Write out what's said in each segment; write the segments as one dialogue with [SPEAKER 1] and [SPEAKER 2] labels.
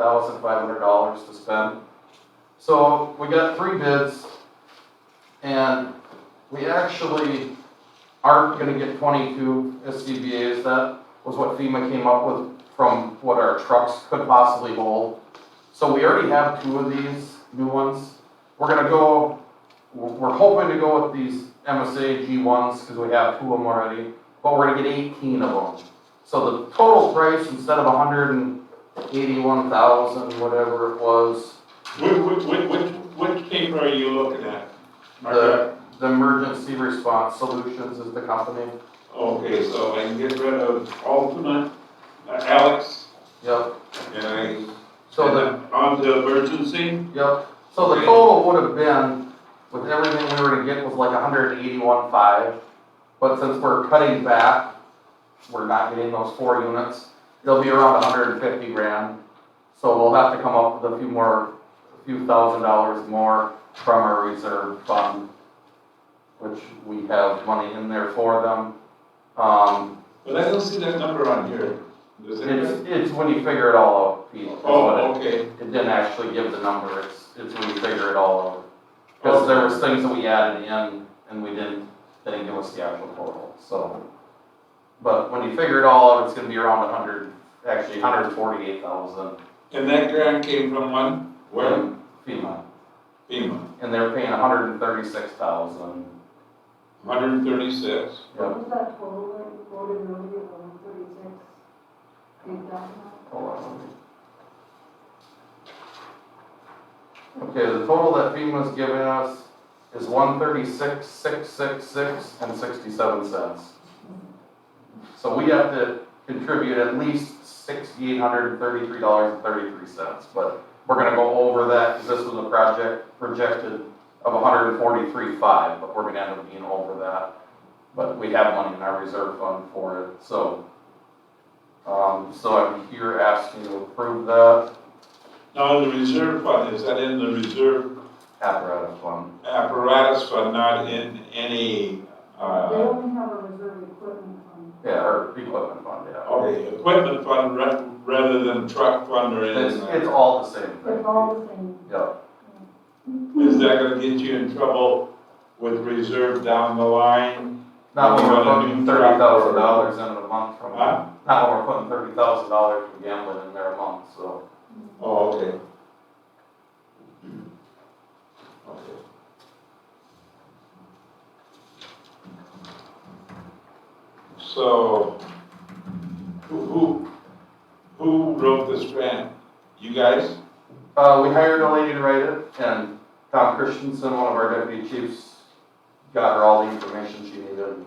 [SPEAKER 1] thousand five hundred dollars to spend. So we got three bids, and we actually aren't gonna get twenty-two SCBA's, that was what FEMA came up with from what our trucks could possibly hold. So we already have two of these new ones, we're gonna go, we're we're hoping to go with these MSA G ones, cause we have two of them already, but we're gonna get eighteen of them. So the total price, instead of hundred and eighty-one thousand, whatever it was,
[SPEAKER 2] Which, which, which, which paper are you looking at?
[SPEAKER 1] Uh, the, the emergency response solutions is the company.
[SPEAKER 2] Okay, so I can get rid of alternate, uh, Alex,
[SPEAKER 1] Yep,
[SPEAKER 2] and I,
[SPEAKER 1] so the,
[SPEAKER 2] and on the emergency,
[SPEAKER 1] yep, so the
[SPEAKER 2] Okay.
[SPEAKER 1] total would have been, with everything we were to get was like a hundred and eighty-one five. But since we're cutting back, we're not getting those four units, it'll be around hundred and fifty grand. So we'll have to come up with a few more, a few thousand dollars more from our reserve fund, which we have money in there for them. Um,
[SPEAKER 2] but I don't see that number on here. Does it?
[SPEAKER 1] it's, it's when you figure it all out, Pete, is what it-
[SPEAKER 2] Oh, okay,
[SPEAKER 1] it didn't actually give the number, it's, it's when you figure it all out. Because there was things that we added in and we didn't, they didn't give us the actual total, so. But when you figure it all out, it's gonna be around a hundred, actually hundred forty-eight thousand
[SPEAKER 2] and that grant came from one, where?
[SPEAKER 1] FEMA,
[SPEAKER 2] FEMA,
[SPEAKER 1] and they're paying hundred and thirty-six thousand.
[SPEAKER 2] hundred and thirty-six.
[SPEAKER 1] Yep,
[SPEAKER 3] What was that total that you quoted earlier, one thirty-six? Eight thousand?
[SPEAKER 1] hold on. Okay, the total that FEMA's giving us is one thirty-six, six, six, six, and sixty-seven cents. So we have to contribute at least sixty-eight hundred and thirty-three dollars and thirty-three cents, but we're gonna go over that, because this was a project projected of 143.5, but we're gonna end up being over that. But we have money in our reserve fund for it, so. Um, so I'm here asking to approve that
[SPEAKER 2] Now, the reserve fund, is that in the reserve
[SPEAKER 1] apparatus fund.
[SPEAKER 2] apparatus fund, not in any,
[SPEAKER 3] They
[SPEAKER 2] uh,
[SPEAKER 3] only have a reserve equipment fund.
[SPEAKER 1] Yeah, or equipment fund, yeah.
[SPEAKER 2] okay, equipment fund ra- rather than truck fund or
[SPEAKER 1] It's,
[SPEAKER 2] anything like that?
[SPEAKER 1] it's all the same
[SPEAKER 3] It's
[SPEAKER 1] thing.
[SPEAKER 3] all the same.
[SPEAKER 1] Yeah,
[SPEAKER 2] Is that gonna get you in trouble with reserve down the line?
[SPEAKER 1] not when we're
[SPEAKER 2] Well, I
[SPEAKER 1] putting
[SPEAKER 2] mean,
[SPEAKER 1] thirty thousand dollars in it a month from now.
[SPEAKER 2] Huh?
[SPEAKER 1] Not when we're putting thirty thousand dollars from gambling in there a month, so.
[SPEAKER 2] Oh, okay. Okay. So, who, who, who wrote this grant? You guys?
[SPEAKER 1] Uh, we hired a lady to write it, and Tom Christensen, one of our deputy chiefs, got her all the information she needed. and-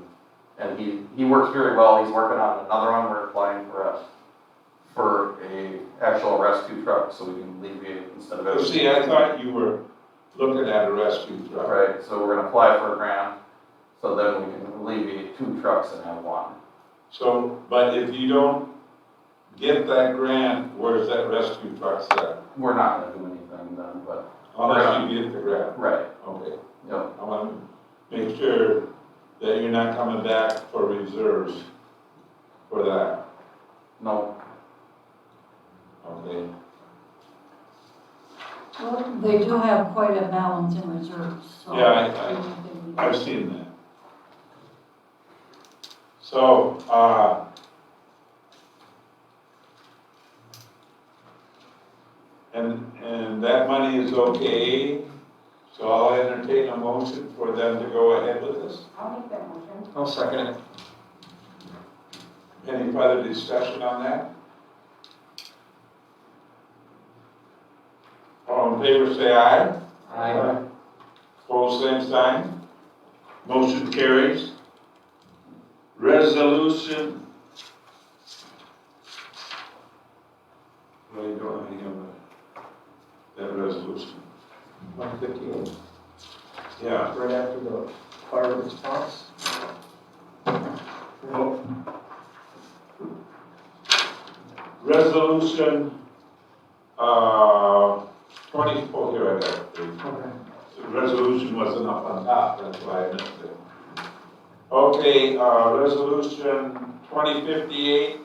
[SPEAKER 1] And he, he works very well, he's working on another one, we're applying for a, for a actual rescue truck, so we can alleviate instead of.
[SPEAKER 2] Oh,
[SPEAKER 1] everything.
[SPEAKER 2] See, I thought you were looking at a rescue truck.
[SPEAKER 1] Right, so we're gonna apply for a grant, so then we can alleviate two trucks and have one.
[SPEAKER 2] So, but if you don't get that grant, where's that rescue truck set?
[SPEAKER 1] We're not gonna do anything then, but,
[SPEAKER 2] Unless you get the grant.
[SPEAKER 1] right,
[SPEAKER 2] Okay,
[SPEAKER 1] yep,
[SPEAKER 2] I want to make sure that you're not coming back for reserves for that,
[SPEAKER 1] no,
[SPEAKER 2] okay?
[SPEAKER 3] Well, they do have quite a balance in reserves, so.
[SPEAKER 2] Yeah, I- I- I've seen that. So, uh, and, and that money is okay, so I'll entertain a motion for them to go ahead with this.
[SPEAKER 3] I'll make that motion.
[SPEAKER 4] I'll second it.
[SPEAKER 2] Any further discussion on that? All in favor, say aye.
[SPEAKER 4] Aye.
[SPEAKER 2] Pose same sign. Motion carries. Resolution. Really don't have any of that, that resolution.
[SPEAKER 4] One fifty-eight,
[SPEAKER 2] Yeah,
[SPEAKER 4] right after the fire response.
[SPEAKER 2] resolution, uh, twenty-four, here I got it.
[SPEAKER 4] Okay.
[SPEAKER 2] The resolution wasn't up on top, that's why I missed it. Okay, uh, resolution twenty fifty-eight,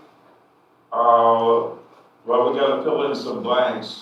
[SPEAKER 2] uh, Well, we gotta fill in some blanks.